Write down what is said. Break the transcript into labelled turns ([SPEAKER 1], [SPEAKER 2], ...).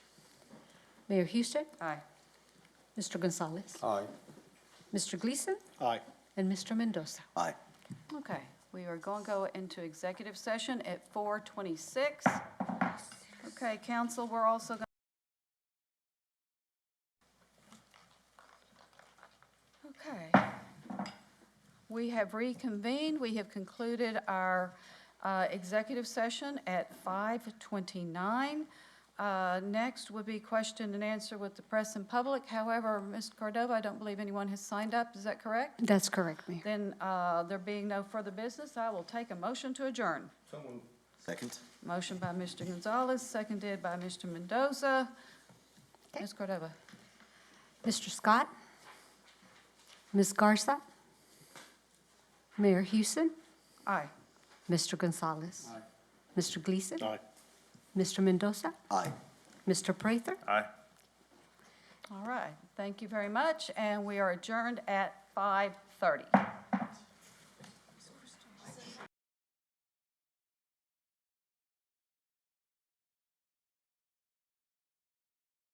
[SPEAKER 1] Mayor Houston,
[SPEAKER 2] Aye.
[SPEAKER 1] Mr. Gonzalez,
[SPEAKER 3] Aye.
[SPEAKER 1] Mr. Gleason,
[SPEAKER 3] Aye.
[SPEAKER 1] and Mr. Mendoza.
[SPEAKER 3] Aye.
[SPEAKER 2] Okay, we are going to go into executive session at 4:26. Okay, council, we're also going. Okay. We have reconvened. We have concluded our uh, executive session at 5:29. Uh, Next would be question and answer with the press and public. However, Ms. Cordova, I don't believe anyone has signed up. Is that correct?
[SPEAKER 1] That's correct, Mayor.
[SPEAKER 2] Then, uh, there being no further business, I will take a motion to adjourn.
[SPEAKER 3] Second?
[SPEAKER 2] Motion by Mr. Gonzalez, seconded by Mr. Mendoza.
[SPEAKER 1] Okay.
[SPEAKER 2] Ms. Cordova?
[SPEAKER 1] Mr. Scott, Ms. Garza, Mayor Houston,
[SPEAKER 2] Aye.
[SPEAKER 1] Mr. Gonzalez, Mr. Gleason,
[SPEAKER 3] Aye.
[SPEAKER 1] Mr. Mendoza,
[SPEAKER 3] Aye.
[SPEAKER 1] Mr. Prather,
[SPEAKER 3] Aye.
[SPEAKER 2] All right. Thank you very much, and we are adjourned at 5:30.